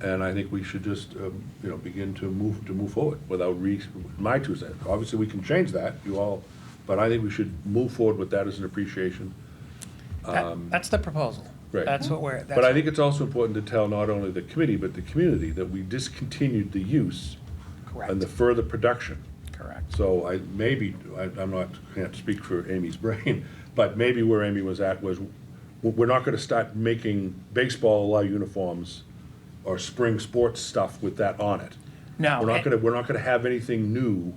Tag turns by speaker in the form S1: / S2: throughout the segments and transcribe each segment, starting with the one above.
S1: And I think we should just, um, you know, begin to move, to move forward without re, my two cents. Obviously, we can change that, you all, but I think we should move forward with that as an appreciation.
S2: That- That's the proposal.
S1: Right.
S2: That's what we're,
S1: Um, But I
S2: that's,
S1: think it's also important to tell not only the committee, but the community that we discontinued the use and
S2: correct,
S1: the further production.
S2: correct.
S1: So I, maybe, I, I'm not, can't speak for Amy's brain, but maybe where Amy was at was, w- we're not gonna start making baseball allow uniforms or spring sports stuff with that on it.
S2: No,
S1: We're not
S2: and-
S1: gonna, we're not gonna have anything new,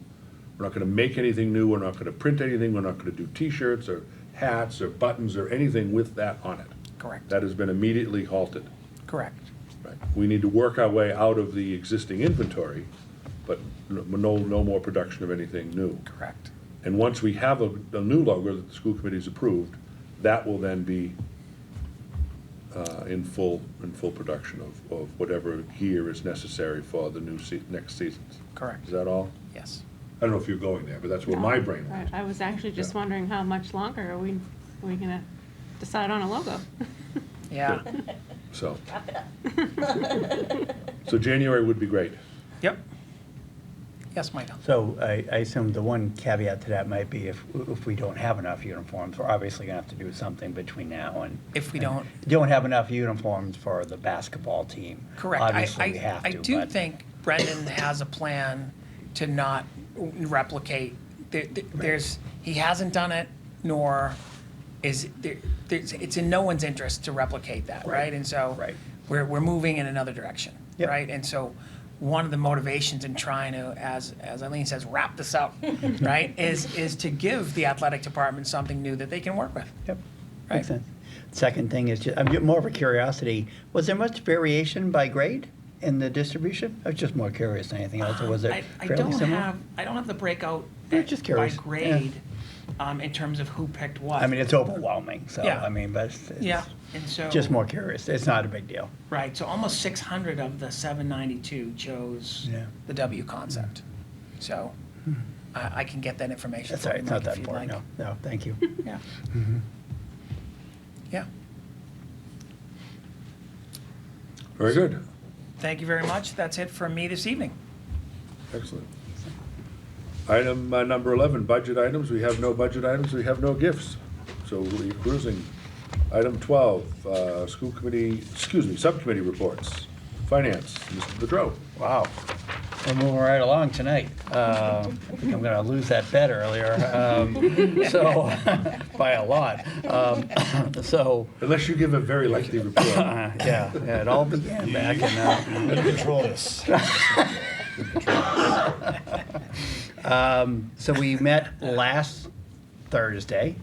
S1: we're not gonna make anything new, we're not gonna print anything, we're not gonna do T-shirts or hats or buttons or anything with that on it.
S2: Correct,
S1: That has been immediately halted.
S2: correct.
S1: We need to work our way out of the existing inventory, but no, no more production of anything new.
S2: Correct.
S1: And once we have a, a new logo that the school committee's approved, that will then be uh, in full, in full production of, of whatever gear is necessary for the new se, next seasons.
S2: Correct.
S1: Is that all?
S2: Yes.
S1: I don't know if you're going there, but that's where my brain went.
S3: I I was actually just
S1: Yeah.
S3: wondering how much longer are we, we gonna decide on a logo?
S2: Yeah.
S1: So,
S4: Wrap it up.
S1: so January would be great.
S2: Yep. Yes, Michael.
S5: So I, I assume the one caveat to that might be if, if we don't have enough uniforms, we're obviously gonna have to do something between now and.
S2: If we don't-
S5: Don't have enough uniforms for the basketball team.
S2: Correct. I-
S5: Obviously, we
S2: I-
S5: have to,
S2: I do
S5: but-
S2: think Brendan has a plan to not replicate, There- there- there's, he hasn't done it, nor is, there- there's, it's in no one's interest to replicate that, right? And so.
S5: Right.
S2: We're, we're moving in another direction,
S5: Yep.
S2: right? And so, one of the motivations in trying to, as, as Eileen says, wrap this up, right, is, is to give the athletic department something new that they can work with.
S5: Yep,
S2: Right.
S5: makes sense. Second thing is, ju- I'm ju- more of a curiosity, was there much variation by grade in the distribution? I was just more curious than anything else, or was
S2: I-
S5: it
S2: I
S5: fairly
S2: don't
S5: similar?
S2: have, I don't have the breakout
S5: Yeah, just curious.
S2: by
S5: Yeah.
S2: grade um, in terms of who picked what.
S5: I mean, it's overwhelming, so,
S2: Yeah.
S5: I mean, but it's-
S2: yeah,
S5: it's,
S2: and so
S5: just more curious, it's not a big deal.
S2: right. So almost 600 of the 792 chose
S5: Yeah. Hmm.
S2: the W concept. So I, I can get that information.
S5: That's
S2: for
S5: all right,
S2: you, Mike,
S5: it's not that
S2: if you'd
S5: important, no,
S2: like.
S5: no, Mm-hmm. thank you.
S2: Yeah. Yeah.
S1: Very good.
S2: Thank you very much. That's it from me this evening.
S1: Excellent. Item uh, number 11, budget items. We have no budget items, we have no gifts. So we're cruising. Item 12, uh, school committee, excuse me, subcommittee reports. Finance, Mr. Bedrow.
S5: Wow. We're moving right along tonight. Um, I think I'm going to lose that bet earlier, um, so, by a lot. Um, So,
S1: Unless you give a very lengthy report.
S5: uh, yeah, yeah, it all began back in, uh,
S6: Control this.
S5: Um, so we met last Thursday,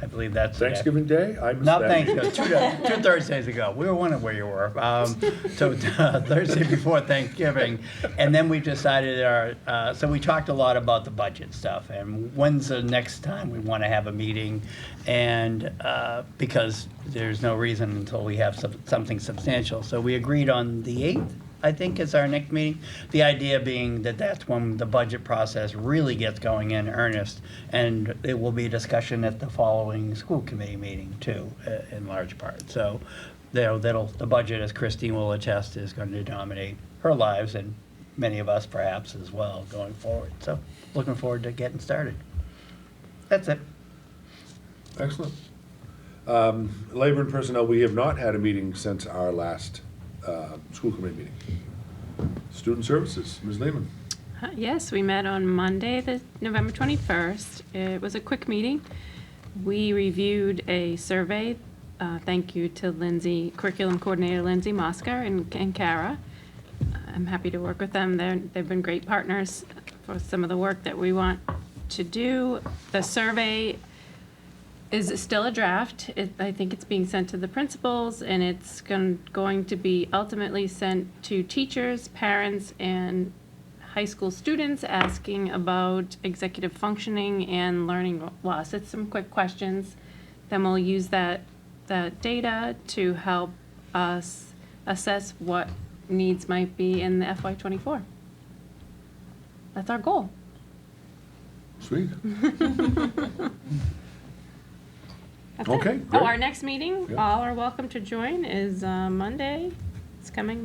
S5: I believe that's. the day.
S1: Thanksgiving Day? I missed
S5: Not
S1: that.
S5: Thanksgiving, two, two Thursdays ago. We were wondering where you were. Um, so uh, Thursday before Thanksgiving, and then we decided our. Uh, so we talked a lot about the budget stuff and when's the next time we want to have a meeting, and uh, because there's no reason until we have some, something substantial. So we agreed on the eighth. I think is our next meeting. The idea being that that's when the budget process really gets going in earnest, and it will be a discussion at the following school committee meeting too, uh, in large part. So, there, that'll, the budget, as Christine will attest, is going to dominate her lives and many of us perhaps as well going forward. So, looking forward to getting started. That's it.
S1: Excellent. Um, Labor and Personnel, we have not had a meeting since our last uh, school committee meeting. Student Services, Ms. Lehman.
S3: Uh, Yes, we met on Monday, the November 21st. It was a quick meeting. We reviewed a survey, uh, thank you to Lindsay, Curriculum Coordinator Lindsay Moscar and and Kara. I'm happy to work with them. They're, they've been great partners for some of the work that we want to do. The survey is still a draft. It, I think it's being sent to the principals, and it's gon- going to be ultimately sent to teachers, parents, and high school students asking about executive functioning and learning loss. It's some quick questions. Then we'll use that, that data to help us assess what needs might be in the FY twenty-four. That's our goal.
S1: Sweet.
S3: That's it.
S1: Okay,
S3: Oh,
S1: great.
S3: our next meeting,
S1: Yeah.
S3: all are welcome to join, is uh, Monday. It's coming